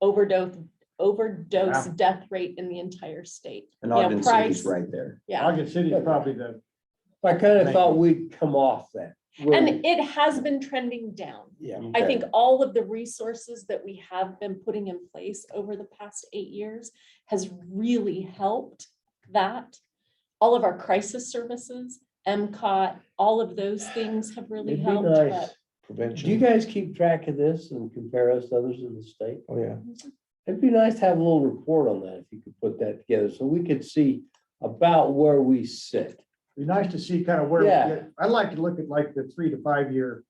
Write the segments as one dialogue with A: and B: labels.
A: overdose, overdose
B: Yeah.
A: death rate in the entire state.
C: And
A: Yeah,
C: Ogden City's
A: Price.
C: right there.
A: Yeah,
B: Ogden City is probably the,
D: I kind of thought we'd come off that.
A: and it has been trending down.
D: Yeah,
A: I
C: Okay.
A: think all of the resources that we have been putting in place over the past eight years has really helped that. All of our crisis services, MCOT, all of those things have really
D: it'd be
A: helped.
D: nice.
A: but-
D: Do you
E: Prevention.
D: guys keep track of this and compare us to others in the state?
E: Oh, yeah.
D: It'd be nice to have a little report on that, if you could put that together, so we could see about where we sit.
B: be nice to see kind of where, we
D: Yeah.
B: get. I'd like to look at like the three to five year,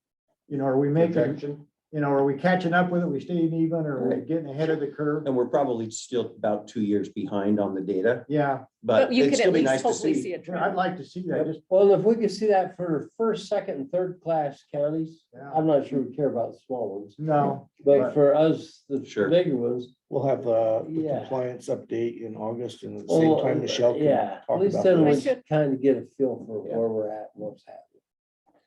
B: you know, are we making,
E: Protection.
B: you know, are we catching up with it? We staying even or are we getting ahead of the curve?
C: And we're probably still about two years behind on the data,
B: Yeah,
C: but
A: But you
C: it'd
A: could at
C: still be
A: least
C: nice to
A: hopefully
C: see.
A: see a
B: you know, I'd
A: trend.
B: like to see that. Just,
D: Well, if we could see that for first, second, and third class counties,
B: yeah,
D: I'm not sure we care about the small ones,
B: no,
D: but
B: Right.
D: for us, the
C: Sure.
D: bigger ones.
E: We'll have uh, the
D: Yeah. Oh, uh,
E: compliance update in August and at the same time, Michelle can
D: Yeah, at
E: talk
D: least
E: about
D: then we
E: this.
A: this.
D: kind of get a feel for
C: Yeah.
D: where we're at, and what's happening.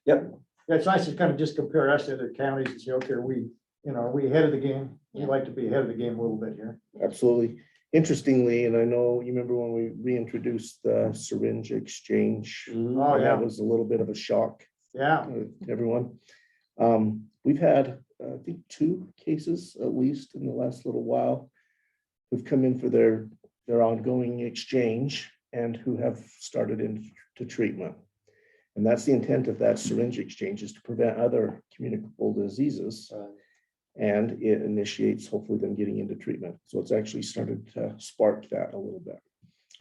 B: Yeah, it's nice to kind of just compare us to other counties and say, okay, are we, you know, are we ahead of the game? We'd
A: Yeah.
B: like to be ahead of the game a little bit here.
E: Absolutely. Interestingly, and I know you remember when we reintroduced the syringe exchange.
B: Oh, yeah.
E: That was a little bit of a shock uh,
B: Yeah,
E: to everyone. Um, We've had, uh, I think, two cases at least in the last little while who've come in for their, their ongoing exchange and who have started into treatment. And that's the intent of that syringe exchange is to prevent other communicable diseases.
D: Right.
E: And it initiates hopefully them getting into treatment. So it's actually started to spark that a little bit.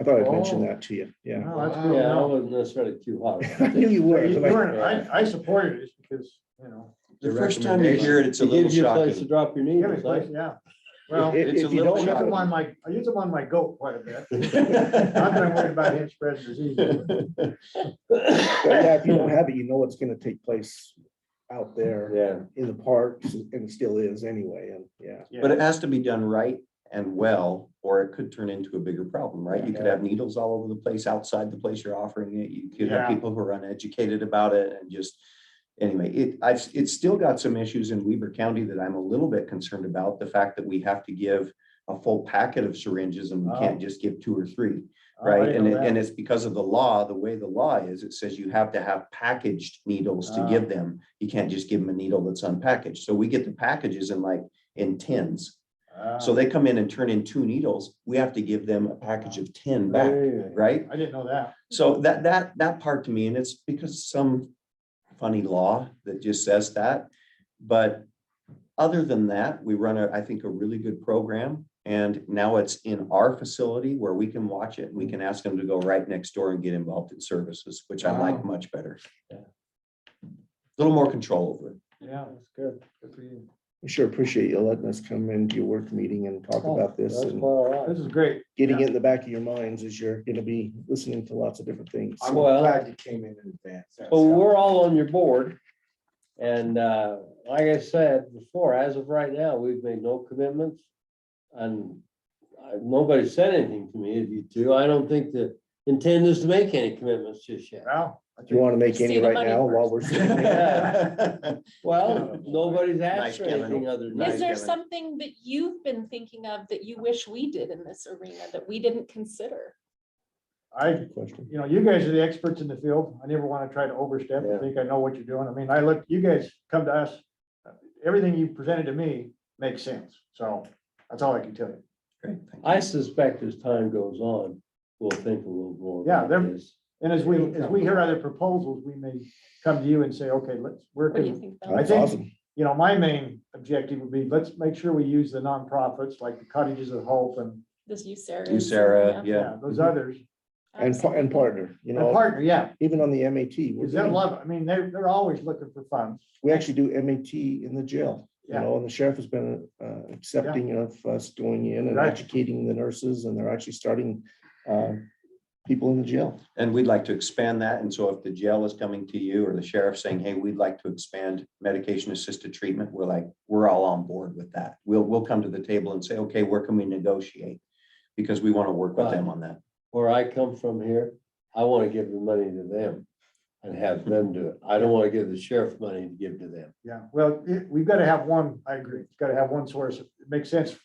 E: I thought I'd mention
D: Oh.
E: that to you. Yeah.
B: no, that's
D: Yeah,
B: good.
D: I
B: No.
D: wasn't necessarily too hot.
E: I
D: about
E: knew
D: it.
E: you were.
B: You- you
E: but I-
B: weren't- I, I supported it just because, you know,
C: The first time you hear it, it's a
D: It
C: little
D: gives you a place to
C: shocking.
D: drop your
B: give me
D: needles.
B: place,
D: huh?
B: yeah. Well,
E: If-
B: I
C: It's
E: if
C: a
E: you
C: little
E: don't
B: use
E: have
B: them
E: a-
B: on my, I use them on my goat quite a bit. I'm not worried about him spreading disease.
E: But yeah, if you don't have it, you know what's gonna take place out there
D: Yeah.
E: in the parks and it still is anyway, and yeah.
C: But it has to be done right and well, or it could turn into a bigger problem, right? You could have needles all over the place, outside the place you're offering it. You could have
B: Yeah.
C: people who are uneducated about it and just. Anyway, it, I've, it's still got some issues in Weber County that I'm a little bit concerned about. The fact that we have to give a full packet of syringes and we can't just give two or three. Right, and it, and it's because of the law, the way the law is, it says you have to have packaged needles to give them. You can't just give them a needle that's unpackaged. So we get the packages in like, in tins.
B: Ah,
C: So they come in and turn in two needles. We have to give them a package of ten back, right?
B: I didn't know that.
C: So that, that, that part to me, and it's because some funny law that just says that. But other than that, we run a, I think, a really good program. And now it's in our facility where we can watch it. We can ask them to go right next door and get involved in services, which I like much better. A
D: Yeah.
C: Little more control over it.
B: Yeah,
D: That's good.
B: good for you.
E: We sure appreciate you letting us come into your work meeting and talk
D: Oh,
E: about this
D: That's
E: and
D: quite all right.
B: This is great.
E: getting
B: yeah.
E: it in the back of your minds as you're gonna be listening to lots of different things.
D: I'm
E: So,
D: Well-
F: glad you came in in advance.
D: Well, we're all on your board. And uh, like I said before, as of right now, we've made no commitments. And uh, nobody said anything to me of you two. I don't think the intent is to make any commitments just yet.
B: Wow. I
E: Do you
B: think-
E: wanna make
A: See
E: any
A: the
E: right
A: money
E: now while we're?
D: first.
E: sitting here?
D: Well, nobody's
C: Nice
D: asked for
C: giving.
D: anything other than.
C: Nice
A: Is there
C: giving.
A: something that you've been thinking of that you wish we did in this arena that we didn't consider?
B: I,
E: Good Question.
B: you know, you guys are the experts in the field. I never want to try to overstep. I
D: Yeah.
B: think I know what you're doing. I mean, I look, you guys come to us. Everything you presented to me makes sense. So that's all I can tell you.
C: Great, thank you.
D: I suspect as time goes on, we'll think a little more.
B: Yeah,
D: about
B: they're-
D: this.
B: And as we, as we hear other proposals, we may come to you and say, okay, let's, where
A: What do you
B: can,
A: think? about
B: I
E: That's
B: think-
E: awesome.
B: you know, my main objective would be, let's make sure we use the nonprofits like the Cottages of Hope and
A: This you, Sarah.
C: You, Sarah, yeah.
B: yeah, those others.
E: And, par- and partner, you
B: And
E: know,
B: partner, yeah,
E: even on the MAT. we're
B: because they
E: getting-
B: love, I mean, they're, they're always looking for funds.
E: We actually do MAT in the jail, you know, and the sheriff has been uh, accepting of us going in and
B: Right.
E: educating the nurses and they're actually starting uh, people in the jail.
C: And we'd like to expand that. And so if the jail is coming to you or the sheriff saying, hey, we'd like to expand medication assisted treatment, we're like, we're all on board with that. We'll, we'll come to the table and say, okay, where can we negotiate? Because we want to work with them on that.
D: Where I come from here, I want to give the money to them and have them do it. I don't want to give the sheriff money to give to them.
B: Yeah, well, it- we've got to have one, I agree, it's got to have one source. It makes sense